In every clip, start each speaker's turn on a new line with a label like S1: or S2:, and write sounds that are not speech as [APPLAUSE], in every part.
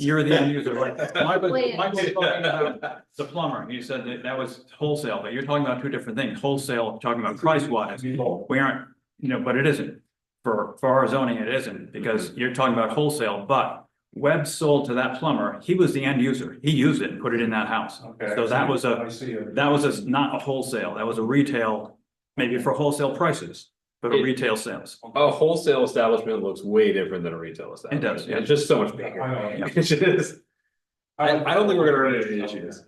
S1: You're the end user, right? Michael
S2: Wait.
S1: Michael's talking about the plumber. He said that that was wholesale, but you're talking about two different things. Wholesale, talking about price wise. We aren't, you know, but it isn't. For, for our zoning, it isn't because you're talking about wholesale, but Webb sold to that plumber. He was the end user. He used it and put it in that house.
S3: Okay.
S1: So that was a-
S3: I see it.
S1: That was a, not a wholesale. That was a retail, maybe for wholesale prices, but a retail sales.
S4: A wholesale establishment looks way different than a retail establishment.
S1: does, yeah.
S4: It's just so much
S3: I
S4: bigger.
S3: know.
S4: [LAUGHS] It's just- I, I don't think we're gonna run into any issues.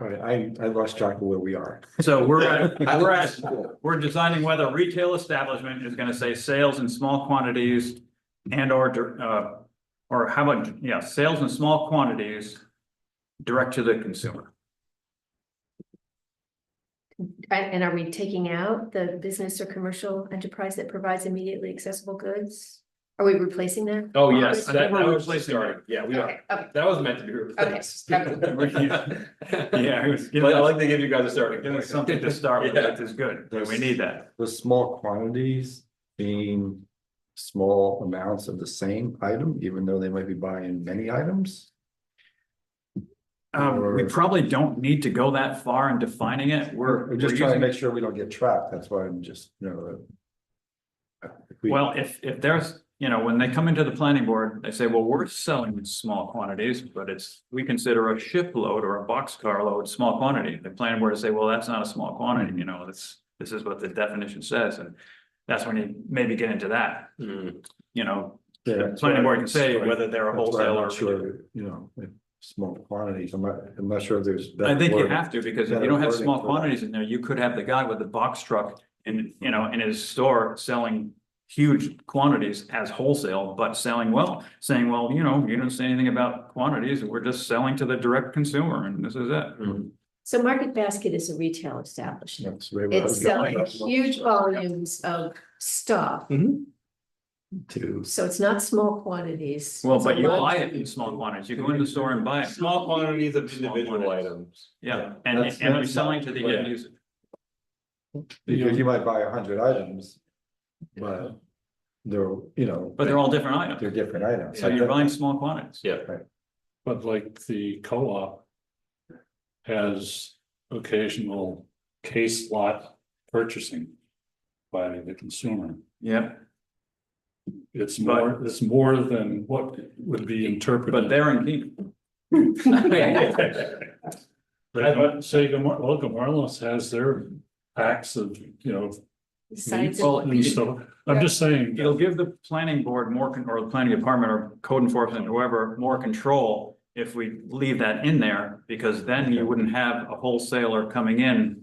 S5: All right, I, I lost track of where we are.
S1: So we're at, [LAUGHS] we're at, we're designing whether retail establishment is gonna say sales in small quantities and or, dir- uh, or how about, yeah, sales in small quantities direct to the consumer.
S2: And and are we taking out the business or commercial enterprise that provides immediately accessible goods? Are we replacing that?
S4: Oh, yes,
S1: I
S4: that,
S1: think
S4: that
S1: we're
S4: was
S1: replacing
S4: starting. Yeah, we are.
S2: Okay, okay.
S4: That was meant to be replaced. [LAUGHS]
S1: [LAUGHS]
S4: Yeah.
S1: Yeah, it's
S4: I
S1: giving us
S4: like to give you guys a starting.
S1: giving
S4: point.
S1: us something to start with,
S4: [LAUGHS] Yeah.
S1: which is good. We need that.
S5: The small quantities being small amounts of the same item, even though they might be buying many items.
S1: Um, we probably don't need to go that far in defining it. We're.
S5: We're just
S1: we're
S5: trying to
S1: using-
S5: make sure we don't get trapped. That's why I'm just, you know. uh, if we-
S1: Well, if, if there's, you know, when they come into the planning board, they say, well, we're selling in small quantities, but it's, we consider a shipload or a boxcar load, small quantity. The planning board will say, well, that's not a small quantity,
S5: Mm-hmm.
S1: you know, that's, this is what the definition says, and that's when you maybe get into that,
S4: Mm.
S1: you know.
S5: Yeah,
S1: The
S5: that's why
S1: planning board can
S5: I'm-
S1: say
S5: that's why-
S1: whether they're a
S5: that's why I'm
S1: wholesale or.
S5: not Sure, you know, if small quantities, I'm not, I'm not sure if there's.
S1: I
S5: better
S1: think you
S5: wording.
S1: have to, because if you
S5: better
S1: don't have
S5: wording
S1: small
S5: for that.
S1: quantities in there, you could have the guy with the box truck in, you know, in his store selling huge quantities as wholesale, but selling well, saying, well, you know, you don't say anything about quantities, we're just selling to the direct consumer and this is it.
S2: So Market Basket is a retail establishment.
S5: That's where I
S2: It's
S5: was
S2: selling
S5: going.
S2: huge volumes of stuff,
S5: To.
S2: so it's not small quantities.
S1: Well,
S2: It's a
S1: but you
S2: lot.
S1: buy it in small quantities. You go in the store and buy it.
S4: Small quantities of individual
S1: quantities.
S4: items.
S1: Yeah,
S5: Yeah,
S1: and,
S5: that's-
S1: and you're
S5: that's not-
S1: selling to the end
S4: yeah.
S1: user.
S5: Because you might buy a hundred items, but they're, you know,
S1: But they're all different items.
S5: they're different items.
S1: So you're buying small quantities.
S4: Yeah.
S6: But like the co-op. Has occasional case lot purchasing. By the consumer,
S1: Yeah,
S6: it's more, it's more than what would be interpreted.
S1: but they're in Keene. [LAUGHS]
S6: Like, uh, Say, Gamar- well, Gamarlos has their packs of, you know.
S1: [LAUGHS]
S2: Besides-
S6: meat And stuff, I'm just saying.
S1: It'll give the planning board more, con- or the planning department or code enforcement, whoever, more control if we leave that in there, because then you wouldn't have a wholesaler coming in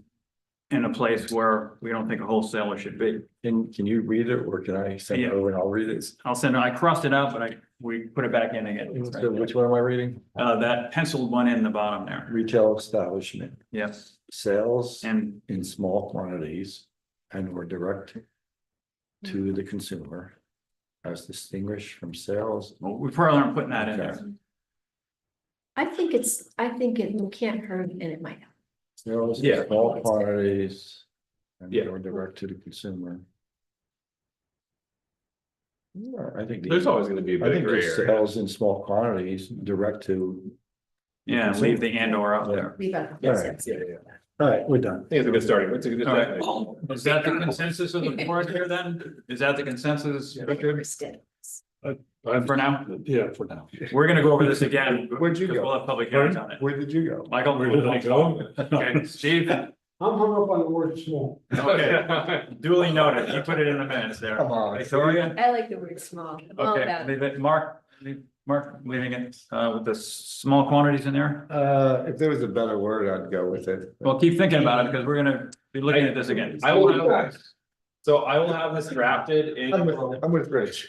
S1: in a place where we don't think a wholesaler should be.
S5: Can, can you read it or can I send
S1: Yeah.
S5: it over and I'll read it?
S1: I'll send, I crossed it out, but I, we put it back in
S5: So
S1: again.
S5: which one am I reading?
S1: Uh, that penciled one in the bottom there,
S5: Retail establishment,
S1: yes,
S5: sales
S1: and
S5: in small quantities and or direct
S1: Mm-hmm.
S5: to the consumer as distinguished from sales.
S1: we probably aren't putting that in there.
S2: I think it's, I think it can't hurt and it might help.
S5: Sales
S4: Yeah.
S5: in small quantities and
S4: Yeah.
S5: or direct to the consumer. Yeah, I think.
S4: [LAUGHS] There's always gonna be a
S5: I
S4: bit of
S5: think
S4: gray
S5: just
S4: area.
S5: sales in small quantities, direct to,
S1: Yeah, leave the and or out there.
S2: Leave out.
S5: All right.
S4: Yeah, yeah, yeah.
S5: all right, we're done.
S4: I think it's a good starting, it's a good
S1: All right.
S4: starting.
S1: Is that the consensus of the board here then? Is that the consensus, Richard,
S2: Understood.
S6: I'm-
S1: for now?
S6: Yeah, for now.
S1: We're gonna go over this again.
S5: Where'd you
S1: because
S5: go?
S1: We'll have public hearings on it.
S5: Where did you go?
S1: Michael.
S6: Where did I go?
S1: Okay, Steve,
S3: I'm hung up on the word small.
S4: [LAUGHS] Okay.
S1: duly noted. You put it in the minutes there.
S5: Come on.
S1: Victoria?
S2: I like the word small. I'm all
S1: Okay,
S2: about it.
S1: leave it. Mark, leave- Mark, leaving it, uh, with the s- small quantities in there?
S5: Uh, if there was a better word, I'd go with it.
S1: Well, keep thinking about it because we're gonna be looking at this again.
S4: I will have, so I will have this drafted
S5: I'm
S4: in,
S5: with, I'm with Rich.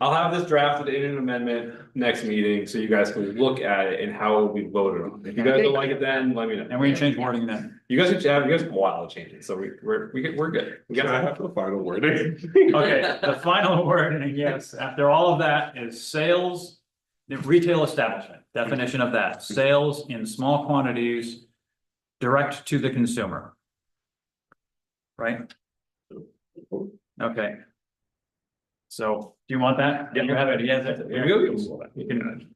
S4: I'll have this drafted in an amendment next meeting, so you guys can look at it and how it will be voted on. If you guys don't like it then, let me know.
S1: And we can change wording then.
S4: You guys can have, you guys have a while to change it, so we, we're, we get, we're good. We got-
S5: the
S4: [LAUGHS]
S5: final word.
S1: Okay, the final word, and yes, after all of that is sales, the retail establishment, definition of that, sales in small quantities, direct to the consumer. Right? Okay. So do you want that?
S4: Yeah.
S1: You have it, yes,
S4: There we go.
S1: You can